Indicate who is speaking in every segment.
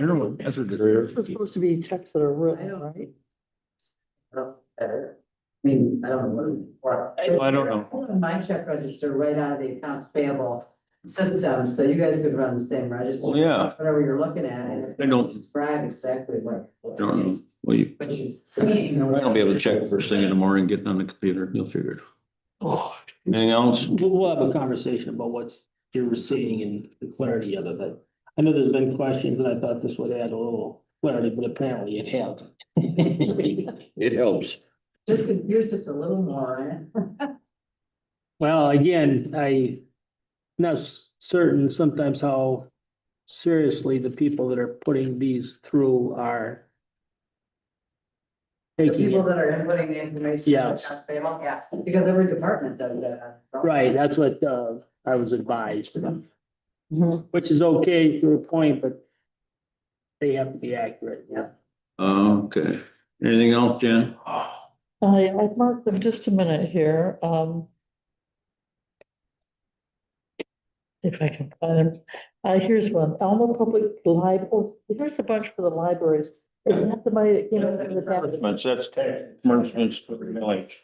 Speaker 1: don't know, that's what
Speaker 2: This is supposed to be checks that are real, right?
Speaker 3: I mean, I don't know what.
Speaker 1: Well, I don't know.
Speaker 3: Pulling My check register right out of the accounts payable system, so you guys could run the same register.
Speaker 1: Well, yeah.
Speaker 3: Whatever you're looking at. and
Speaker 1: I don't-
Speaker 3: Describe exactly what.
Speaker 1: I don't know. Well, you,
Speaker 3: What you're seeing.
Speaker 1: I don't be able to check first thing in the morning, getting on the computer, you'll figure it. out. Anything else?
Speaker 4: We'll, we'll have a conversation about what's you're receiving and the clarity of it, but I know there's been questions and I thought this would add a little clarity, but apparently it helped.
Speaker 1: It helps.
Speaker 3: Just, could- here's just a little more.
Speaker 4: Well, again, I not s- certain sometimes how seriously the people that are putting these through are
Speaker 3: The
Speaker 4: taking
Speaker 3: people
Speaker 4: it.
Speaker 3: that are inputting the information.
Speaker 4: Yes.
Speaker 3: to accounts payable, Yes, because every department does that.
Speaker 4: Right, that's what, uh, I was advised,
Speaker 2: Mm-hmm.
Speaker 4: which is okay to a point, but they have to be accurate, yeah.
Speaker 1: Okay, anything else, Jen?
Speaker 5: I, I've marked them just a minute here, um. If I can find them, uh, here's one, Alma Public Lib, oh, here's a bunch for the libraries. Is that the money that came out of the tax?
Speaker 1: that's tax, advertisements for the village.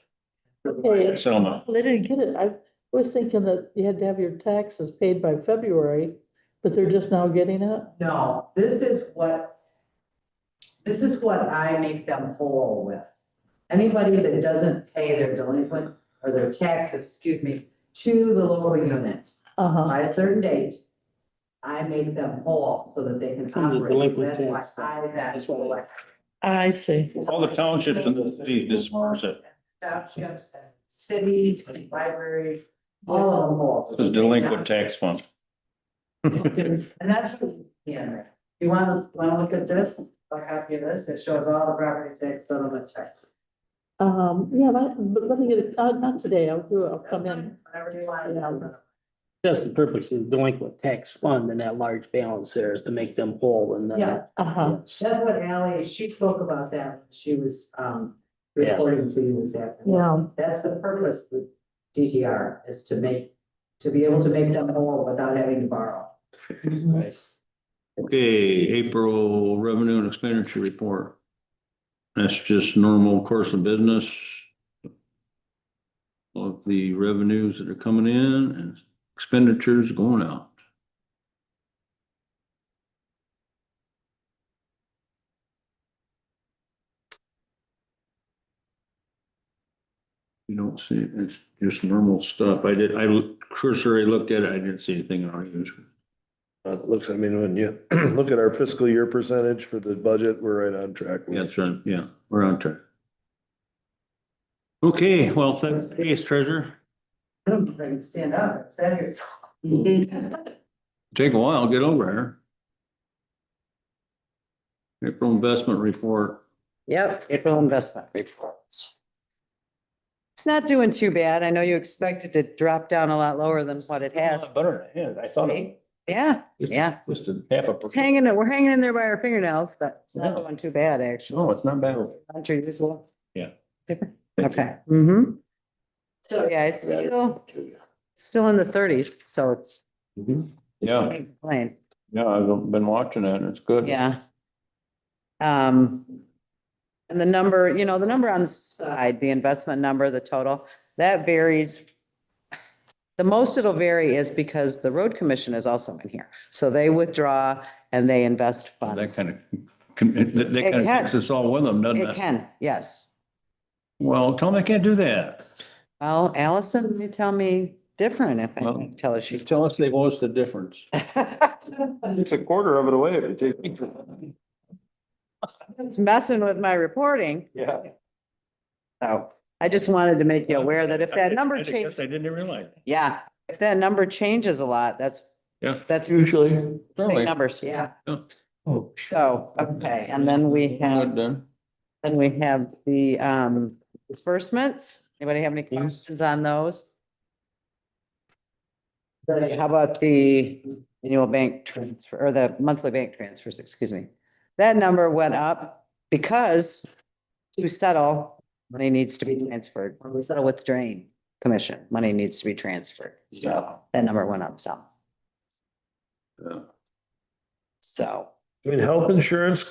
Speaker 5: Okay,
Speaker 1: Selma.
Speaker 5: Well, I didn't get it, I was thinking that you had to have your taxes paid by February, but they're just now getting it?
Speaker 3: No, this is what, this is what I make them whole with. Anybody that doesn't pay their delinquent or their taxes, excuse me, to the local unit
Speaker 5: Uh-huh,
Speaker 3: by a certain date, I make them whole so that they can
Speaker 4: From the
Speaker 3: operate.
Speaker 4: delinquent
Speaker 3: That's why
Speaker 4: tax.
Speaker 3: I that
Speaker 4: That's why-
Speaker 3: collect.
Speaker 5: I see,
Speaker 1: All the townships in the city disperse it.
Speaker 3: Townships, and cities, and libraries, all
Speaker 5: Oh,
Speaker 3: of them whole.
Speaker 1: This is delinquent tax fund.
Speaker 3: And that's, what- yeah, you wanna, wanna look at this, a copy of this, it shows all the property tax settlement checks.
Speaker 5: um, yeah, but, but let me get it, uh, not today, I'll do it, I'll come in.
Speaker 3: Whatever you want.
Speaker 4: That's the purpose of the delinquent tax fund and that large balance there is to make them whole and then.
Speaker 3: Yeah.
Speaker 5: Uh-huh,
Speaker 3: That's what Ally, she spoke about that, when she was, um,
Speaker 4: Yeah.
Speaker 3: reporting to you this afternoon.
Speaker 5: yeah,
Speaker 3: That's the purpose of DTR, is to make, to be able to make them whole without having to borrow.
Speaker 1: Okay, April revenue and expenditure report. That's just normal course of business. Of the revenues that are coming in and expenditures going out. You don't see, it. it's just normal stuff. I did, I cursory looked at it. I didn't see anything unusual.
Speaker 6: Uh, it looks, I mean, when you look at our fiscal year percentage for the budget, we're right on track.
Speaker 1: Yeah, That's right, yeah, we're on track. Okay, well, thank- thanks, treasurer.
Speaker 3: I don't think I can stand up, it's that here.
Speaker 1: Take a while, get over here. April investment report.
Speaker 7: Yep, April investment reports. It's not doing too bad. I know you expected to drop down a lot lower than what it has.
Speaker 1: Better, yeah, I thought it
Speaker 7: Yeah,
Speaker 1: It's-
Speaker 7: yeah.
Speaker 1: was to half a.
Speaker 7: It's hanging, we're hanging in there by our fingernails, but it's not doing too bad, actually.
Speaker 1: No, Oh, it's not bad.
Speaker 7: Not your usual.
Speaker 1: Yeah.
Speaker 7: Okay. Mm-hmm. So, yeah, it's still, still in the thirties, so it's Oh.
Speaker 1: Yeah,
Speaker 7: plain.
Speaker 1: yeah, I've been watching it, and it's good.
Speaker 7: Yeah. Um, and the number, you know, the number on the side, the investment number, the total, that varies. The most it'll vary is because the road commission is also in here. So they withdraw and they invest
Speaker 1: That
Speaker 7: funds.
Speaker 1: kind of, that that kind of
Speaker 7: can.
Speaker 1: takes us all with them, doesn't
Speaker 7: It
Speaker 1: it?
Speaker 7: can, yes.
Speaker 1: Well, tell them I can't do that.
Speaker 7: Well, Allison, you tell me different if I
Speaker 1: Well,
Speaker 7: can tell her she.
Speaker 1: Tell us they owe us the difference.
Speaker 6: It's a quarter of it away if you take.
Speaker 7: It's messing with my reporting.
Speaker 6: Yeah.
Speaker 7: So I just wanted to make you aware that if that number
Speaker 1: change.
Speaker 7: changes,
Speaker 1: I didn't realize.
Speaker 7: yeah, if that number changes a lot, that's,
Speaker 1: Yeah.
Speaker 7: that's
Speaker 6: Usually.
Speaker 7: Big
Speaker 1: Certainly.
Speaker 7: numbers, yeah.
Speaker 1: Yeah.
Speaker 7: So, okay, and then we
Speaker 1: Good
Speaker 7: have,
Speaker 1: then.
Speaker 7: then we have the um disbursements. Anybody have any questions on those? How about the annual bank transfer or the monthly bank transfers, excuse me? That number went up because to settle, money needs to be transferred. When we settle with drain commission, money needs to be transferred. So that number went up some,
Speaker 1: Yeah.
Speaker 7: so.
Speaker 6: I mean, health insurance